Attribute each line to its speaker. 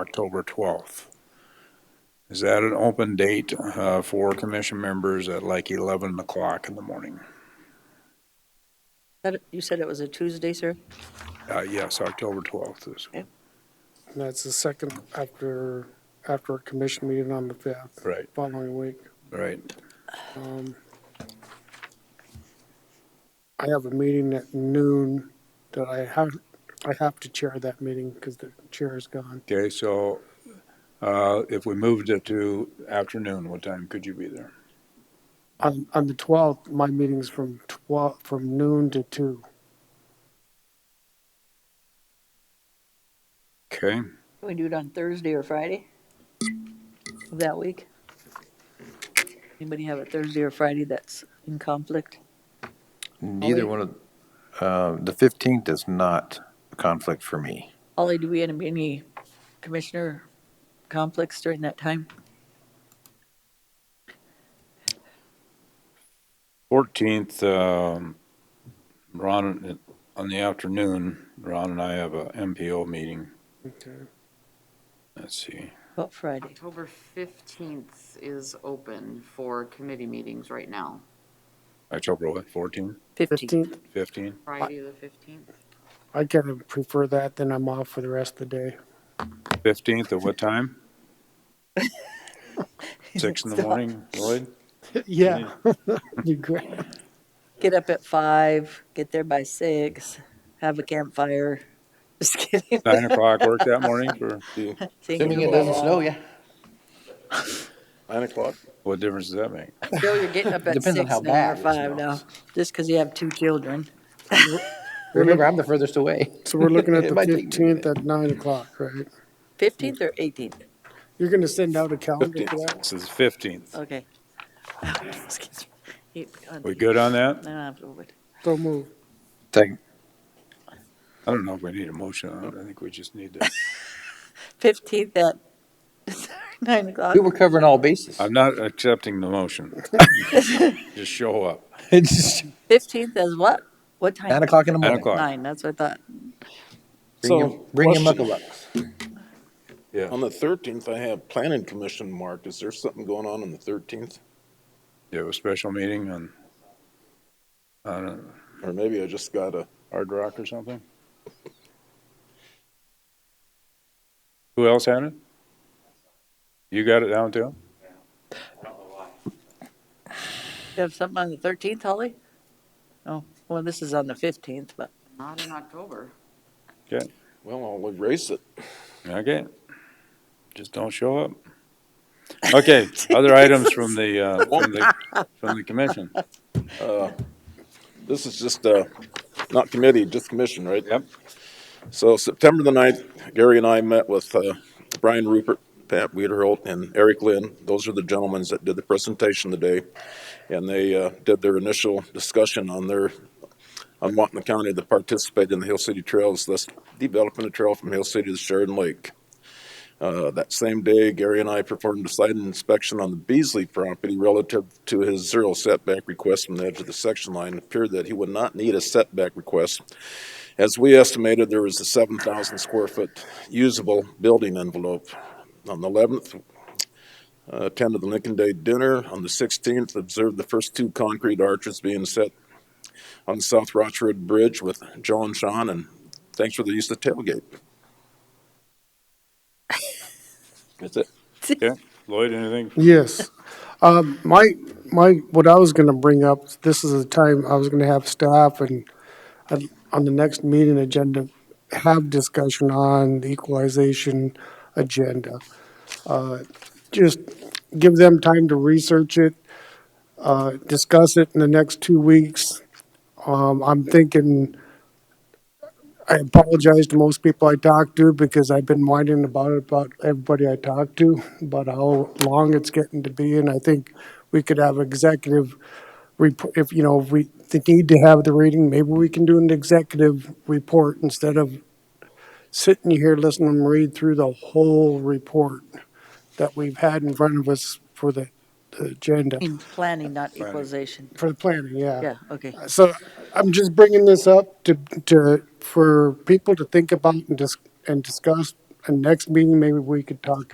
Speaker 1: October 12th. Is that an open date uh, for commission members at like 11 o'clock in the morning?
Speaker 2: That- You said it was a Tuesday, sir?
Speaker 1: Uh, Yes, October 12th is.
Speaker 3: And that's the second after, after a commission meeting on the fifth,
Speaker 1: Right.
Speaker 3: following week.
Speaker 1: Right.
Speaker 3: Um, I have a meeting at noon that I have, I have to chair that meeting because the chair is gone.
Speaker 1: Okay, so uh, if we moved it to afternoon, what time could you be there?
Speaker 3: On, on the twelfth, my meeting's from twelve, from noon to two.
Speaker 1: Okay,
Speaker 2: Can we do it on Thursday or Friday of that week? Anybody have a Thursday or Friday that's in conflict?
Speaker 4: Neither one of, uh, the 15th is not a conflict for me.
Speaker 2: Ollie, do we have any commissioner conflicts during that time?
Speaker 1: 14th, um, Ron, on the afternoon, Ron and I have a MPO meeting.
Speaker 3: Okay.
Speaker 1: Let's see.
Speaker 2: What Friday?
Speaker 5: October 15th is open for committee meetings right now.
Speaker 1: October what, 14,
Speaker 2: Fifteenth.
Speaker 3: Fifteenth,
Speaker 1: 15?
Speaker 5: Friday, the 15th.
Speaker 3: I kind of prefer that, then I'm off for the rest of the day.
Speaker 1: 15th at what time? Six in the
Speaker 2: Stop.
Speaker 1: morning, Lloyd?
Speaker 3: Yeah. You great.
Speaker 2: Get up at five, get there by six, have a campfire. Just kidding.
Speaker 1: Nine o'clock work that morning for,
Speaker 2: Thinking
Speaker 4: snow, yeah.
Speaker 6: Nine o'clock?
Speaker 1: what difference does that make?
Speaker 2: Bill, you're getting up at
Speaker 4: Depends on
Speaker 2: six
Speaker 4: how
Speaker 2: now or
Speaker 4: bad it
Speaker 2: five now, just because you have two children.
Speaker 4: Remember, I'm the furthest away.
Speaker 3: So we're looking at
Speaker 4: It
Speaker 3: the
Speaker 4: might take me a
Speaker 3: fifteenth at nine o'clock, right?
Speaker 2: Fifteenth or eighteenth?
Speaker 3: You're gonna send out a calendar for that?
Speaker 1: Fifteenth, this is fifteenth.
Speaker 2: Okay. Excuse me.
Speaker 1: We good on
Speaker 2: I
Speaker 1: that?
Speaker 2: don't have to wait.
Speaker 3: So move.
Speaker 4: Second.
Speaker 1: I don't know if we need a motion on it. I think we just need to,
Speaker 2: Fifteenth at nine o'clock.
Speaker 4: We were covering all bases.
Speaker 1: I'm not accepting the motion. Just show up.
Speaker 4: It's
Speaker 2: Fifteenth is what? What time?
Speaker 4: Nine o'clock in the
Speaker 1: Nine
Speaker 4: morning.
Speaker 1: o'clock.
Speaker 2: Nine, that's what I thought.
Speaker 4: Bring your-
Speaker 6: So,
Speaker 4: Bring your
Speaker 6: question.
Speaker 4: muckabucks.
Speaker 1: Yeah,
Speaker 6: On the thirteenth, I have planning commission marked. Is there something going on on the thirteenth?
Speaker 1: do a special meeting on, on a
Speaker 6: Or maybe I just got a,
Speaker 1: Hard Rock or something? Who else had it? You got it down too?
Speaker 2: You have something on the thirteenth, Holly? Oh, well, this is on the fifteenth, but
Speaker 5: Not in October.
Speaker 1: Okay,
Speaker 6: well, I'll erase it.
Speaker 1: okay. Just don't show up. Okay, other items from the, uh, from the, from the commission.
Speaker 6: This is just, uh, not committee, just commission, right?
Speaker 1: Yep.
Speaker 6: So September the ninth, Gary and I met with, uh, Brian Rupert, Pat Weiderholt, and Eric Lynn. Those are the gentlemen that did the presentation today. And they, uh, did their initial discussion on their, on wanting the county to participate in the Hill City Trails, thus developing a trail from Hill City to Sheridan Lake. Uh, that same day, Gary and I performed a site inspection on the Beasley property relative to his zero setback request from the edge of the section line. It appeared that he would not need a setback request. As we estimated, there was a seven thousand square foot usable building envelope. On the eleventh, attended the Lincoln Day dinner. On the sixteenth, observed the first two concrete arches being set on the South Rochford Bridge with Joe and Sean, and thanks for the use of tailgate. That's it.
Speaker 1: Okay, Lloyd, anything?
Speaker 3: Yes. Um, my, my, what I was gonna bring up, this is the time I was gonna have staff and uh, on the next meeting agenda, have discussion on the equalization agenda. Uh, Just give them time to research it, uh, discuss it in the next two weeks. Um, I'm thinking, I apologize to most people I talk to because I've been whining about it about everybody I talk to, about how long it's getting to be, and I think we could have executive report, if, you know, if we they need to have the reading, maybe we can do an executive report instead of sitting here listening to them read through the whole report that we've had in front of us for the the agenda,
Speaker 2: in planning, not equalization.
Speaker 3: for the planning,
Speaker 2: Yeah, okay.
Speaker 3: so I'm just bringing this up to, to, for people to think about and dis- and discuss and next meeting, maybe we could talk